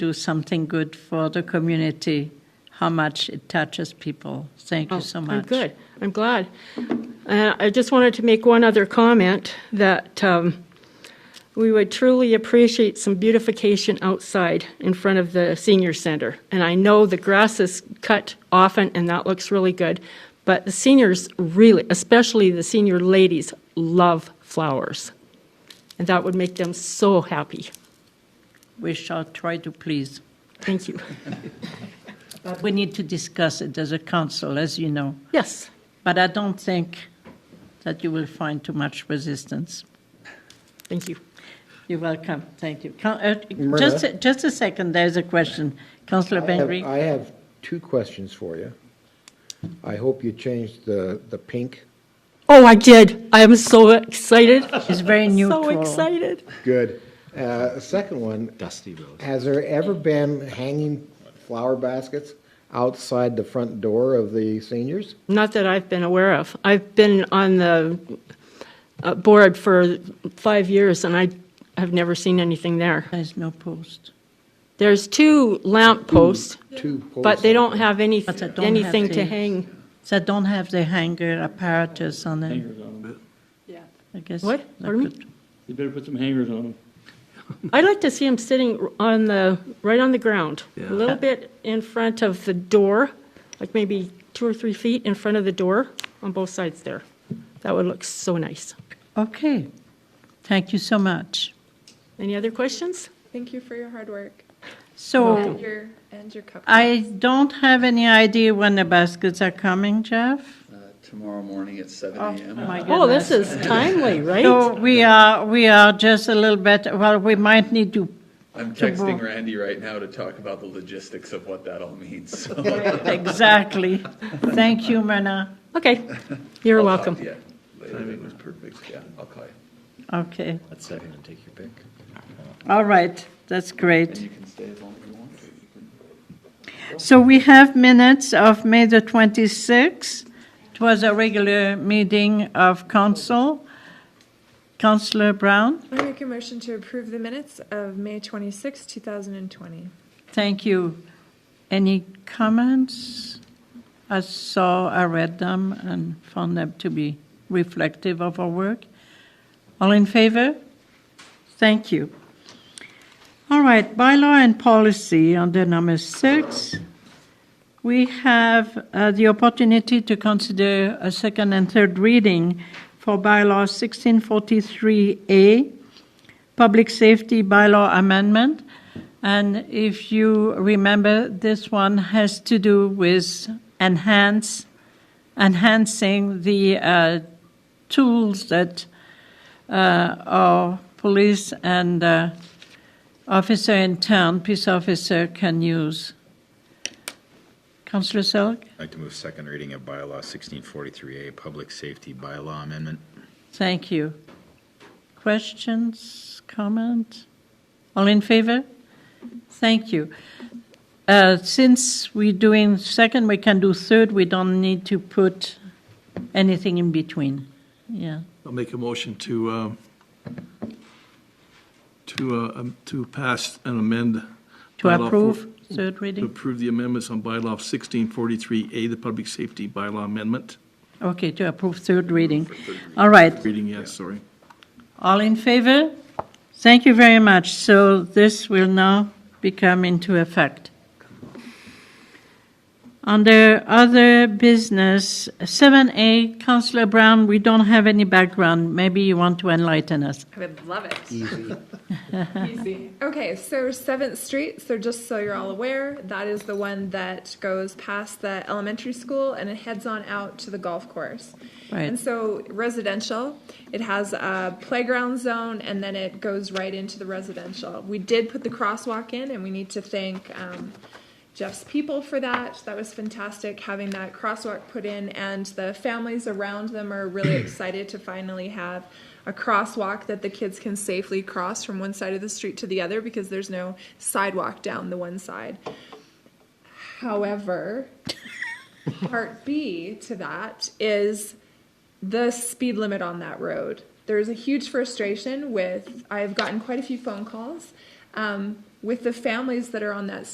do something good for the community, how much it touches people. Thank you so Oh, much. I'm good. I'm glad. And I just wanted to make one other comment that um, we would truly appreciate some beautification outside in front of the senior center. And I know the grass is cut often and that looks really good, but the seniors really, especially the senior ladies, love flowers. And that would make them so happy. We shall try to please. Thank you. But we need to discuss it as a council, as you know. Yes. But I don't think that you will find too much resistance. Thank you. You're welcome. Thank you. Coun- uh, Just, a- just a second, there's a question. Councillor Oh, I have- Bengry? uh, I have two questions for you. I hope you changed the, the pink. Oh, I did. I am so excited. It's very neutral. So excited. Good. Uh, Second one, Dusty Rose. has there ever been hanging flower baskets outside the front door of the seniors? Not that I've been aware of. I've been on the uh, board for five years, and I have never seen anything there. There's no post. There's two lamp posts, Two poles? but they don't have any, But they don't have anything to the- hang. So don't have the hanger apparatus on it. I guess. What? that Pardon me? could- You better put some hangers on them. I'd like to see them sitting on the, right on the ground, a little bit in front of the door, like maybe two or three feet in front of the door on both sides there. That would look so nice. Okay. Thank you so much. Any other questions? Thank you for your hard work So and your and your cup. I don't have any idea when the baskets are coming, Jeff. Uh, Tomorrow morning at seven Oh, AM. my Oh, this goodness. is timely, right? So we are, we are just a little bit, well, we might need to I'm tomorrow. texting Randy right now to talk about the logistics of what that all means. So I'll talk Exactly. Thank you, Myrna. Okay, Oh, you're welcome. to you later. Timing was perfect. Yeah, I'll call you. Okay. That's second and take your pick. All right. That's And great. you can stay as long as you want. So we have minutes of May the 26th. It was a regular meeting of council. Councillor Brown, I make a motion to approve the minutes of May 26, 2020. thank you. Any comments? I saw, I read them and found them to be reflective of our work. All in favor? Thank you. All right, bylaw and policy under number six. We have uh, the opportunity to consider a second and third reading for bylaw 1643A, Public Safety Bylaw Amendment. And if you remember, this one has to do with enhance, enhancing the uh, tools that uh, our police and uh, officer in town, peace officer, can use. Councillor Selk, I'd like to move second reading of bylaw 1643A, Public Safety Bylaw Amendment. thank you. Questions, comment? All in favor? Thank you. Uh, Since we're doing second, we can do third, we don't need to put anything in between. Yeah, I'll make a motion to, um, to, uh, um, to pass and amend. to bylaw four- approve, third To reading? approve the amendments on bylaw 1643A, the public safety bylaw amendment. Okay, to approve third reading. All right. Reading, yes, sorry. All in favor? Thank you very much. So this will now become into effect. Under other business, 7A, Councillor Brown, we don't have any background. Maybe you want to enlighten us. I would love it. Easy. Easy. Okay, so 7th Street, so just so you're all aware, that is the one that goes past the elementary school and it heads on out to the golf course. Right. And so residential, it has a playground zone and then it goes right into the residential. We did put the crosswalk in and we need to thank um, Jeff's people for that. That was fantastic having that crosswalk put in, and the families around them are really excited to finally have a crosswalk that the kids can safely cross from one side of the street to the other because there's no sidewalk down the one side. However, part B to that is the speed limit on that road. There's a huge frustration with, I've gotten quite a few phone calls um, with the families that are on that